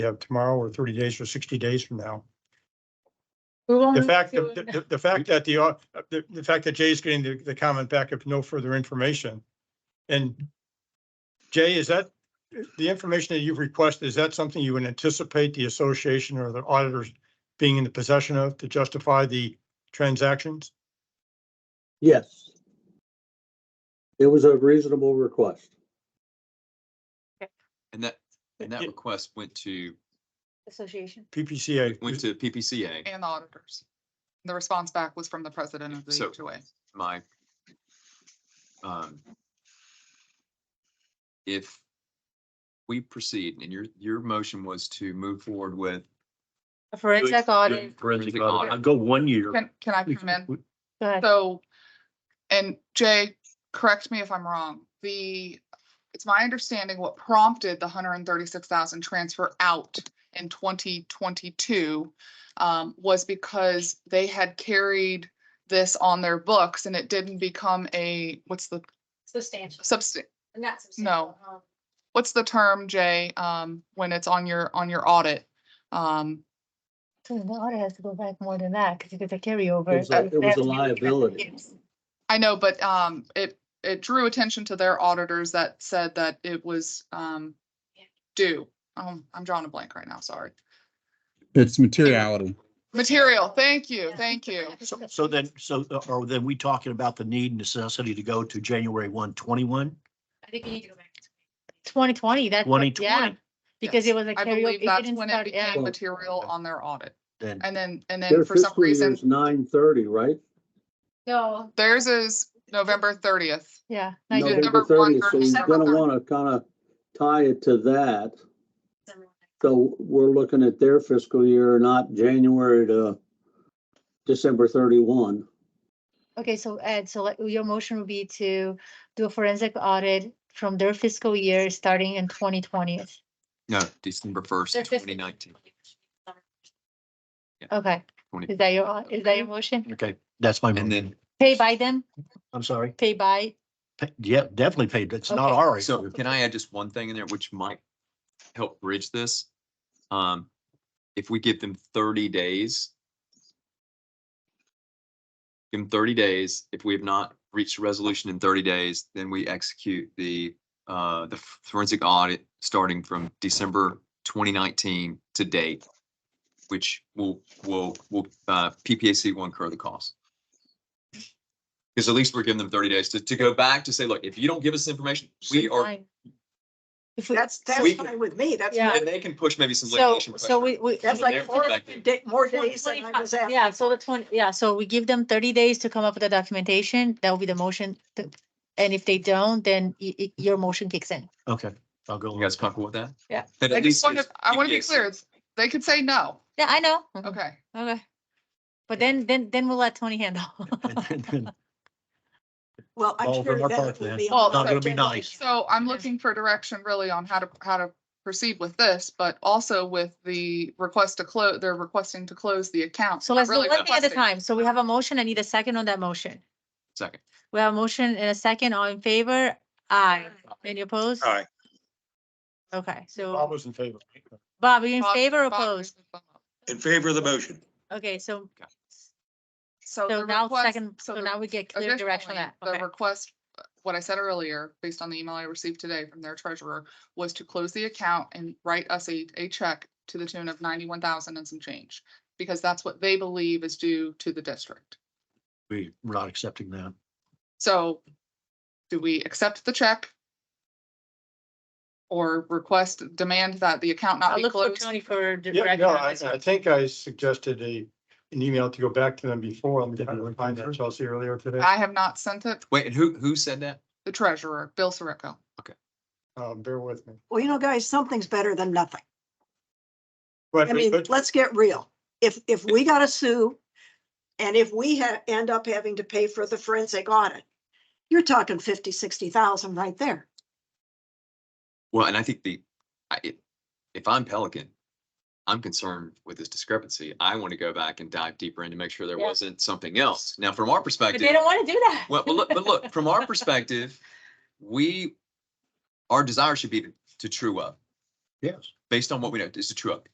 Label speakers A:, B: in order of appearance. A: you have tomorrow or thirty days or sixty days from now.
B: We
C: Oh,
B: will
A: The
B: have
A: fact,
B: to-
A: the, the- the fact that the, uh, the, the fact that Jay's getting the, the comment back of no further information. And Jay, is that, the information that you've requested, is that something you would anticipate the association or the auditors being in the possession of to justify the transactions?
D: Yes. It was a reasonable request.
E: And that, and that
A: Yeah.
E: request went to,
F: Association.
A: PPCA.
E: went to PPCA,
G: and the auditors. The response back was from the president of
E: So-
G: the HOA.
E: my. um, If we proceed and your, your motion was to move forward with,
F: A forensic audit.
E: Forensic
H: Forensic
E: audit.
H: audit. I'll go one year.
G: Can, can I
H: We-
G: come in?
H: we-
F: Go ahead.
G: So, and Jay, correct me if I'm wrong, the, it's my understanding what prompted the hundred and thirty-six thousand transfer out in twenty twenty-two um, was because they had carried this on their books and it didn't become a, what's the
F: Substantial.
G: substan-
F: Not
G: No.
F: substantial. huh?
G: what's the term, Jay, um, when it's on your, on your audit? Um,
F: So the audit has to go back more than that because it's a carryover.
D: It was a- it was a liability.
G: I know, but um, it, it drew attention to their auditors that said that it was um, due. Um, I'm drawing a blank right now, sorry.
I: It's materiality.
G: Material, thank you, thank you.
H: So, so then, so uh, are then we talking about the need and necessity to go to January one twenty-one?
F: I think we need to go back. Twenty twenty, that's. what-
H: 2020.
F: yeah, Because it
G: Yes.
F: was a
G: I
F: carryover.
G: believe
F: It
G: that's
F: didn't
G: when it
F: start- yeah.
G: became material on their audit.
H: Then,
G: And then, and
D: Their
G: then for some
D: fiscal year
G: reason,
D: is nine thirty, right?
F: No,
G: theirs is November thirtieth.
F: yeah.
G: No,
F: like-
G: November
D: November thirtieth, so
G: one,
D: you're
G: December
D: gonna
G: third.
D: wanna kinda tie it to that. So we're looking at their fiscal year, not January to December thirty-one.
F: Okay, so Ed, so like, your motion would be to do a forensic audit from their fiscal year starting in twenty twenty.
E: no, December first, twenty nineteen.
F: Okay, is that your, is that your motion?
H: okay, that's my,
E: And
H: motion.
E: then,
F: Pay by them,
H: I'm sorry.
F: pay by,
H: Pa- Yeah, definitely paid. It's not
F: Okay.
H: our.
E: so
H: issue.
E: can I add just one thing in there which might help bridge this? Um, if we give them thirty days. Give them thirty days. If we have not reached a resolution in thirty days, then we execute the, uh, the forensic audit starting from December twenty nineteen to date. Which will, will, will, uh, PPAC will incur the cost. Because at least we're giving them thirty days to, to go back to say, look, if you don't give us information, we are,
F: Fine. If we,
C: That's, that's
E: We-
C: fine with me. That's,
F: Yeah.
E: and they can push maybe some
F: so,
E: litigation. pressure.
F: so we, we.
C: that's
E: From
C: like
E: their
C: four
E: perspective.
C: da- more
F: Well,
C: days than I
F: 25
C: was at.
F: Yeah, so the twenty, yeah, so we give them thirty days to come up with the documentation, that will be the motion, to- and if they don't, then y- y- your motion kicks in.
H: Okay, I'll go.
E: You guys comfortable with that?
F: Yeah.
E: Then
G: I
E: at
G: just
E: least.
G: want to,
E: it's-
G: I
E: it
G: want to be
E: gives-
G: clear, they could say no,
F: Yeah, I know. Mm-hmm.
G: okay.
F: Okay. But then, then, then we'll let Tony handle.
H: And then- then-
C: Well, I'm
H: All of
C: sure
H: them are
C: that
H: part
C: will
H: then.
C: be.
G: Well,
C: on
G: Not
C: the
G: gonna
H: be
C: agenda.
H: nice.
G: So I'm looking for direction really on how to, how to proceed with this, but also with the request to close, they're requesting to close the account.
F: So
G: Not
F: let's do
G: really
F: one thing at a
G: requesting.
F: time, so we have a motion, I need a second on that motion.
E: Second.
F: We have a motion and a second, all in favor? Aye. Any opposed?
A: Aye.
F: Okay,
A: Bob
F: so
A: was in favor.
F: Bob, are you in
G: Bob-
F: favor or
G: Bob,
F: opposed?
G: raise your thumb up.
J: In favor of the motion.
F: Okay, so,
G: So
F: so
G: the
F: now
G: request-
F: second,
G: so
F: so
G: the
F: now we get clear direction on
G: Additionally,
F: that. Okay.
G: The request, what I said earlier, based on the email I received today from their treasurer, was to close the account and write us a, a check to the tune of ninety-one thousand and some change. Because that's what they believe is due to the district.
H: we- We're not accepting that.
G: So do we accept the check? Or request, demand that the account not
F: I'll
G: be
F: look for
G: closed?
F: Tony for
A: Yeah,
F: direction
A: no,
F: on
A: I,
F: this
A: I
F: one.
A: think I suggested a, an email to go back to them before. I'm trying to find that Chelsea earlier today.
G: I have not sent it,
E: Wait, and who, who said that?
G: the treasurer, Bill Sirico.
A: Uh, bear with me.
C: Well, you know, guys, something's better than nothing.
A: But,
C: I mean,
A: but-
C: let's get real. If, if we gotta sue and if we ha- end up having to pay for the forensic audit, you're talking fifty, sixty thousand right there.
E: Well, and I think the, I, if, if I'm Pelican, I'm concerned with this discrepancy. I want to go back and dive deeper in to make sure there
F: Yeah.
E: wasn't something else. Now, from our
F: But
E: perspective.
F: they don't want to do that.
E: Well, but look, but look, from our perspective, we, our desire should be to- to true up.
H: Yes.
E: based on what we know, it's a true up.